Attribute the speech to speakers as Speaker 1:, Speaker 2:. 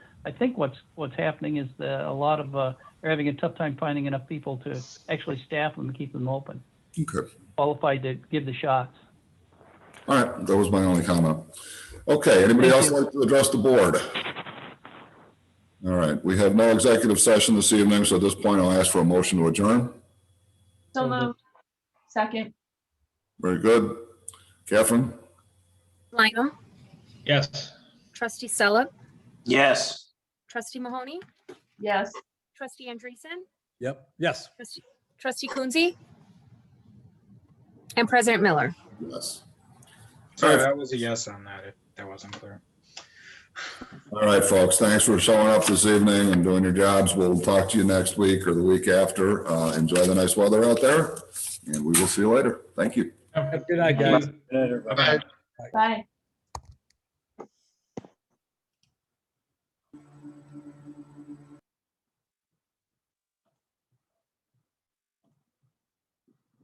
Speaker 1: I think what's what's happening is that a lot of uh, are having a tough time finding enough people to actually staff them and keep them open,
Speaker 2: Okay.
Speaker 1: qualified to give the shots.
Speaker 2: All right, that was my only comment. Okay, anybody
Speaker 1: Thank
Speaker 2: else
Speaker 1: you.
Speaker 2: like to address the board? All right, we have no executive session this evening, so at this point, I'll ask for a motion to adjourn.
Speaker 1: So
Speaker 3: So
Speaker 1: moved.
Speaker 3: moved. Second,
Speaker 2: Very good. Catherine?
Speaker 4: Lineham,
Speaker 5: Yes.
Speaker 4: trustee Sella,
Speaker 6: Yes.
Speaker 4: trustee Mahoney,
Speaker 3: yes.
Speaker 4: trustee Andreessen,
Speaker 5: Yep. Yes.
Speaker 4: trustee- trustee Coonsey, and President Miller.
Speaker 2: Yes.
Speaker 7: Sorry, that was a yes on that, if that wasn't clear.
Speaker 2: All right, folks, thanks for showing up this evening and doing your jobs. We'll talk to you next week or the week after. Uh, Enjoy the nice weather out there, and we will see you later. Thank you.
Speaker 5: Good night, guys.
Speaker 7: Bye-bye.
Speaker 3: Bye.